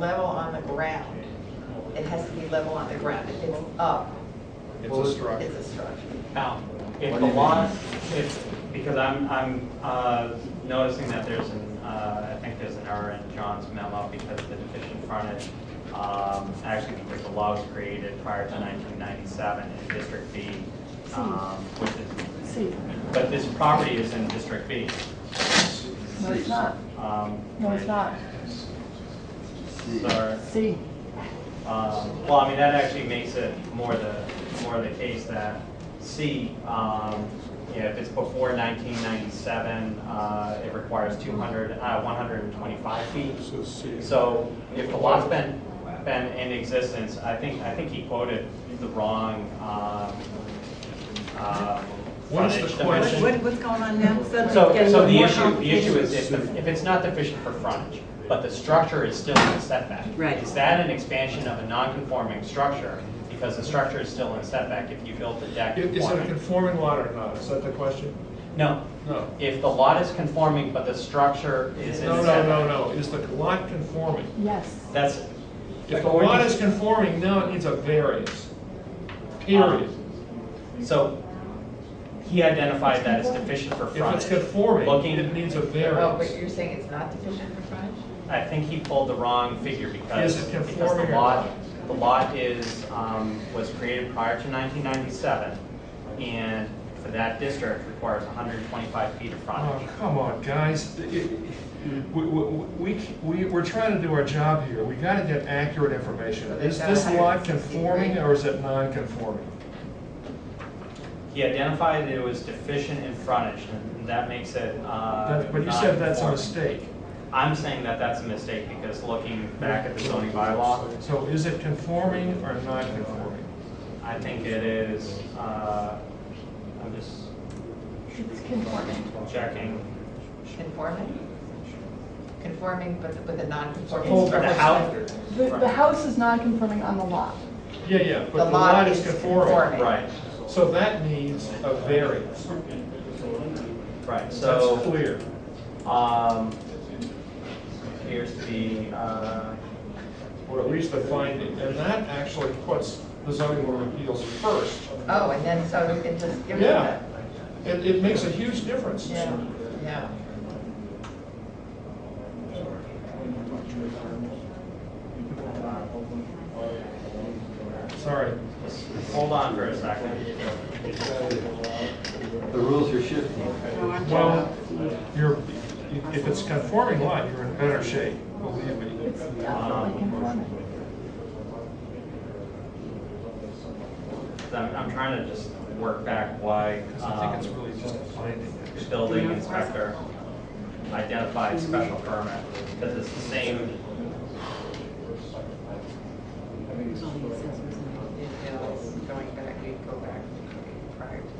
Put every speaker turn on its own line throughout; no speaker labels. level on the ground. It has to be level on the ground. If it's up,
It's a
it's
structure.
a structure.
Now, if
What do
the
you
law, if, because I'm, I'm uh, noticing that there's an, uh, I think there's an error in John's memo because the deficient frontage, um, actually, because the law was created prior to 1997 in District B,
Hmm.
um, which is,
C.
but this property is in District B.
No, it's not.
um,
No, it's not.
Sorry.
C.
Um, Well, I mean, that actually makes it more the, more the case that C, um, you know, if it's before 1997, uh, it requires 200, uh, 125 feet.
So C.
So if the lot's been, been in existence, I think, I think he quoted the wrong um, uh,
What is the
frontage
question?
dimension.
What, what's going on now?
So, so the issue, the issue is if, the- if it's not deficient for frontage, but the structure is still in a setback.
Right.
Is that an expansion of a non-conforming structure? Because the structure is still in setback if you built the deck.
Is is it a
conforming.
conforming lot or not? Is that the question?
No,
No.
if the lot is conforming, but the structure is in
No, no,
setback.
no, no. Is the lot conforming?
Yes.
That's.
If the lot is conforming, now it needs a variance. Period.
So he identified that it's deficient for
If
frontage.
it's conforming,
Looking-
it needs a
Oh, but
variance.
you're saying it's not deficient for frontage?
I think he pulled the wrong figure because,
Is it
because
conforming
the
or
lot,
not?
the lot is, um, was created prior to nineteen ninety-seven. And for that district requires hundred and twenty-five feet of
Oh,
frontage.
come on, guys. It- it- We, we, we- we, we're trying to do our job here. We gotta get accurate information. Is this lot conforming or is it non-conforming?
He identified that it was deficient in frontage and that makes it, uh.
That- But you said that's a
non-conforming.
mistake.
I'm saying that that's a mistake because looking back at the zoning bylaw,
So is it conforming or non-conforming?
I think it is, uh, I'm just
It's conforming.
checking.
Conforming? Conforming, but with a non-conforming
Hold
structure.
The house,
The, the house is non-conforming on the lot.
Yeah, yeah, but
The
the
lot
lot is
is
conforming.
conforming.
right,
So that needs a variance.
right, so.
That's clear.
Um, appears to be, uh,
Or at least the finding, and that actually puts the zoning board of appeals first.
Oh, and then so we can just give it
Yeah.
that.
It, it makes a huge difference.
Yeah, yeah.
Sorry.
hold on for a second.
The rules are shifting.
Well, you're, if it's conforming lot, you're in better shape, believe me.
It's definitely conforming.
I'm, I'm trying to just work back why,
Because I think it's
um,
really just a finding.
the building inspector identified special permit, because it's the same,
Details going back, we go back prior to that.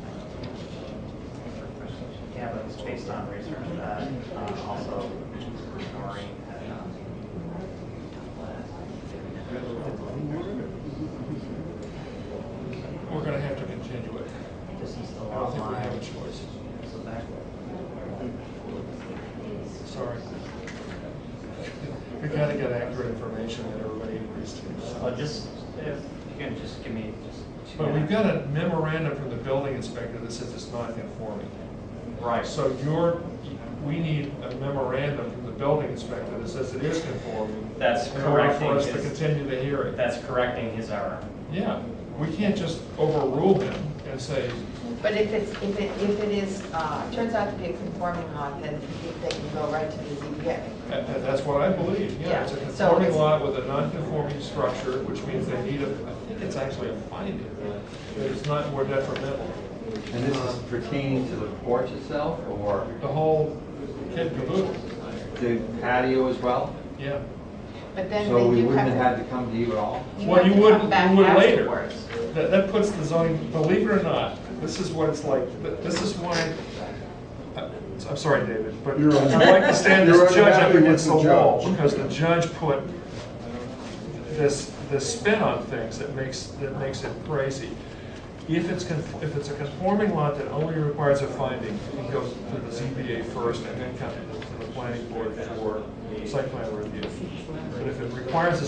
yeah, but it's based on research that, uh, also Noreen had, um,
We're gonna have to continue it.
this is the
I don't
lot
think we have a
line.
choice.
So that-
Sorry. We gotta get accurate information that everybody agrees
I'll
to.
just, if you can just give me just two.
But we've
minutes.
got a memorandum from the building inspector that says it's not conforming.
Right,
So you're, we need a memorandum from the building inspector that says it is conforming.
That's
in order
correcting
For us to
his-
continue the hearing.
that's correcting his error.
Yeah, we can't just overrule him and say,
But if it's, if it, if it is, uh, turns out to be a conforming lot, then they can go right to the ZBA.
that- that- that's what I believe. Yeah, it's a
Yeah, so
conforming
it's-
lot with a non-conforming structure, which means they need a, I think it's actually a finding. That it's not more detrimental.
And this is pertaining to the porch itself or
The whole kid caboodle,
the patio as well?
yeah.
But then
So
they
we
do
wouldn't have had
have,
to come to you at all?
you
Well,
have
you
to
would,
come
you
back
would later.
afterwards.
That, that puts the zoning, believe it or not, this is what it's like, Th- this is why, I- I'm sorry, David, but
You're on-
I like to stand
You're
this judge up
unhappy with
against the
the
wall,
judge.
because the judge put this, this spin on things that makes, that makes it crazy. If it's, conf- if it's a conforming lot that only requires a finding, it goes to the ZBA first and then comes to the planning board for site plan review. But if it requires a